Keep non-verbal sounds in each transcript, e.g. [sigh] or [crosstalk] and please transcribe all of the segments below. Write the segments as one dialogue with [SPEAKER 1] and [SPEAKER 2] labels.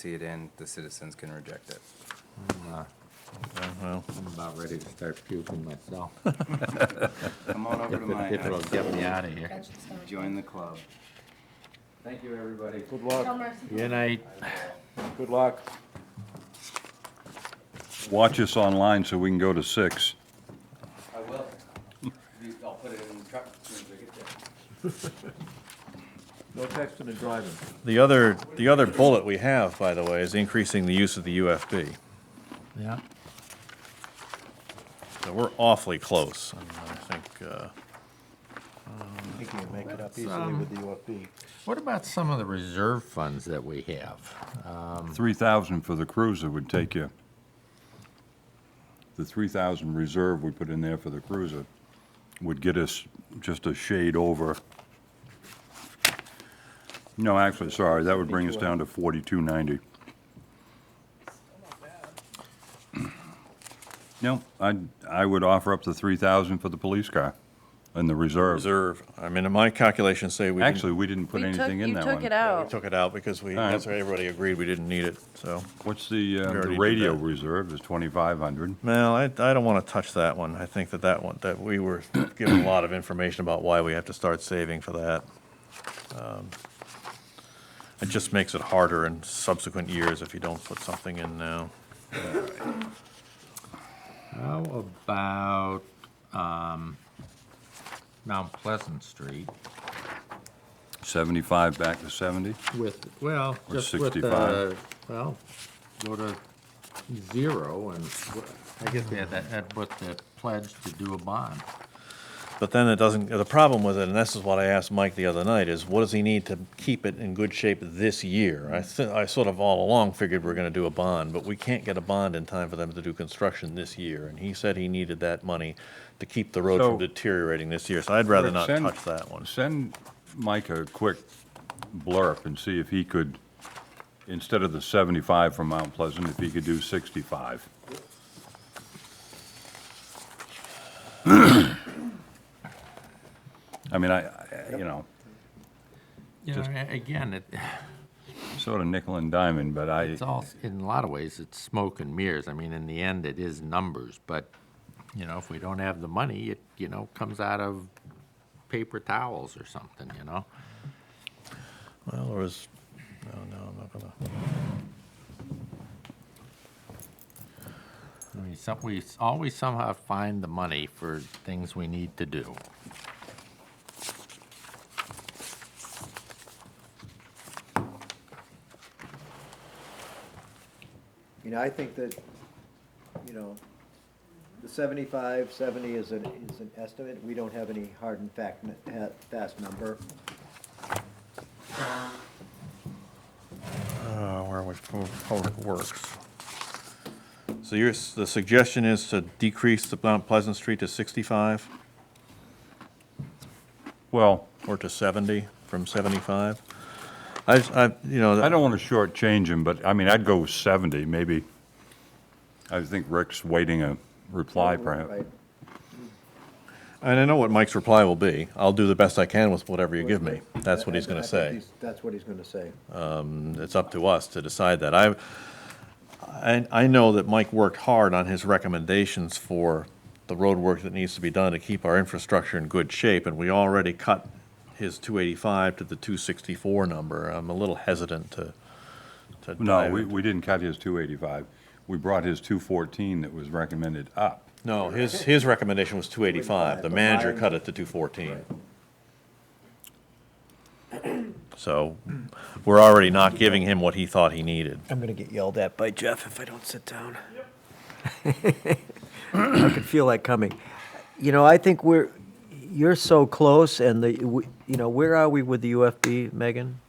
[SPEAKER 1] see it in, the citizens can reject it.
[SPEAKER 2] Well,
[SPEAKER 3] I'm about ready to start puking myself.
[SPEAKER 1] Come on over to my
[SPEAKER 3] If it'll
[SPEAKER 1] house,
[SPEAKER 3] get me out of here.
[SPEAKER 4] Bench is gone.
[SPEAKER 1] join the club. Thank you, everybody.
[SPEAKER 2] good
[SPEAKER 4] No
[SPEAKER 2] luck,
[SPEAKER 4] mercy.
[SPEAKER 3] Good night.
[SPEAKER 2] good luck.
[SPEAKER 5] Watch us online so we can go to six.
[SPEAKER 1] I will. I'll put it in the truck as soon as I get there.
[SPEAKER 2] No texting and driving.
[SPEAKER 6] The other, the other bullet we have, by the way, is increasing the use of the UFB.
[SPEAKER 3] Yeah.
[SPEAKER 6] So we're awfully close. and I think, uh,
[SPEAKER 2] I think you can make it up easily with the UFB.
[SPEAKER 3] Um, What about some of the reserve funds that we have?
[SPEAKER 5] 3,000 for the cruiser would take you, the 3,000 reserve we put in there for the cruiser would get us just a shade over. No, actually, sorry, that would bring us down to 4290. [clears throat] No, I, I would offer up the 3,000 for the police car and the reserve.
[SPEAKER 6] Reserve, I mean, in my calculations say we didn't-
[SPEAKER 5] Actually, we didn't put
[SPEAKER 7] We took-
[SPEAKER 5] anything in that one.
[SPEAKER 7] You took it
[SPEAKER 6] we
[SPEAKER 7] out.
[SPEAKER 6] took it out because we,
[SPEAKER 5] Alright.
[SPEAKER 6] that's why everybody agreed we didn't need it, so.
[SPEAKER 5] What's the, uh,
[SPEAKER 6] We already
[SPEAKER 5] the
[SPEAKER 6] did
[SPEAKER 5] radio
[SPEAKER 6] that.
[SPEAKER 5] reserve is 2,500.
[SPEAKER 6] Well, I, I don't want to touch that one. I think that that one, that we were given a lot of information about why we have to start saving for that. Um, It just makes it harder in subsequent years if you don't put something in now.
[SPEAKER 3] How about um, Mount Pleasant Street
[SPEAKER 5] 75 back to 70?
[SPEAKER 3] with, well,
[SPEAKER 5] Or
[SPEAKER 3] just with the,
[SPEAKER 5] 65.
[SPEAKER 3] well, go to zero and I guess we had that, that was the pledge to do a bond.
[SPEAKER 6] But then it doesn't, the problem with it, and this is what I asked Mike the other night, is what does he need to keep it in good shape this year? I, thi- I sort of all along figured we're gonna do a bond, but we can't get a bond in time for them to do construction this year. And he said he needed that money to keep the road
[SPEAKER 5] So-
[SPEAKER 6] from deteriorating this year, so I'd rather not
[SPEAKER 5] Send-
[SPEAKER 6] touch that one.
[SPEAKER 5] Send Mike a quick blurb and see if he could, instead of the 75 from Mount Pleasant, if he could do 65. [clears throat] I mean, I, I- you know,
[SPEAKER 3] You know, a- again, it,
[SPEAKER 5] sort of nickel and diamond, but I,
[SPEAKER 3] it's all, in a lot of ways, it's smoke and mirrors. I mean, in the end, it is numbers, but, you know, if we don't have the money, it, you know, comes out of paper towels or something, you know?
[SPEAKER 6] Well, there was, no, no, I'm not gonna.
[SPEAKER 3] I mean, some, we s- always somehow find the money for things we need to do.
[SPEAKER 8] You know, I think that, you know, the 75, 70 is an, is an estimate. We don't have any hard and fact, n- ha- fast number.
[SPEAKER 6] Uh, where was Public Works? So your, s- the suggestion is to decrease the Mount Pleasant Street to 65
[SPEAKER 5] well,
[SPEAKER 6] or to 70 from 75? I, s- I- you know.
[SPEAKER 5] I don't want to shortchange him, but I mean, I'd go 70, maybe. I think Rick's waiting a reply perhaps.
[SPEAKER 8] Right.
[SPEAKER 6] And I know what Mike's reply will be. I'll do the best I can with whatever you give me. That's what he's
[SPEAKER 8] I- I
[SPEAKER 6] going to
[SPEAKER 8] think
[SPEAKER 6] say.
[SPEAKER 8] he's- That's what he's gonna say.
[SPEAKER 6] It's up to us to decide that. I, I, I know that Mike worked hard on his recommendations for the road work that needs to be done to keep our infrastructure in good shape, and we already cut his two eighty-five to the two sixty-four number. I'm a little hesitant to, to
[SPEAKER 5] No,
[SPEAKER 6] dive
[SPEAKER 5] we,
[SPEAKER 6] into-
[SPEAKER 5] we didn't cut his 285. We brought his 214 that was recommended up.
[SPEAKER 6] No, his, his recommendation was two eighty-five. The manager cut it to two fourteen. So, we're already not giving him what he thought he needed.
[SPEAKER 8] I'm gonna get yelled at by Jeff if I don't sit down. [laughs] I could feel that coming. You know, I think we're, you're so close and the, we- you know, where are we with the UFB, Megan?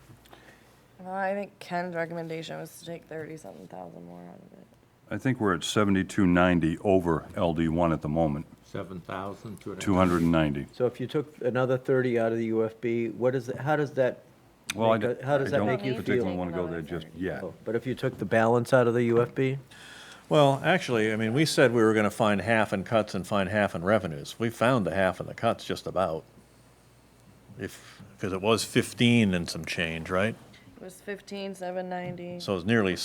[SPEAKER 7] Well, I think Ken's recommendation was to take thirty-seven thousand more out of it.
[SPEAKER 5] I think we're at 7290 over LD1 at the moment,
[SPEAKER 3] Seven thousand, two hundred.
[SPEAKER 5] 290.
[SPEAKER 8] So if you took another 30 out of the UFB, what is, how does that
[SPEAKER 5] Well, I
[SPEAKER 8] Make
[SPEAKER 5] d-
[SPEAKER 8] a- how does
[SPEAKER 5] I
[SPEAKER 8] that
[SPEAKER 5] don't
[SPEAKER 8] make you
[SPEAKER 5] particularly
[SPEAKER 7] feel?
[SPEAKER 5] want to go there just yet.
[SPEAKER 8] Oh, But if you took the balance out of the UFB?
[SPEAKER 6] Well, actually, I mean, we said we were gonna find half in cuts and find half in revenues. We found the half in the cuts just about. If, because it was fifteen and some change, right?
[SPEAKER 7] It was fifteen, seven ninety.
[SPEAKER 6] So it's nearly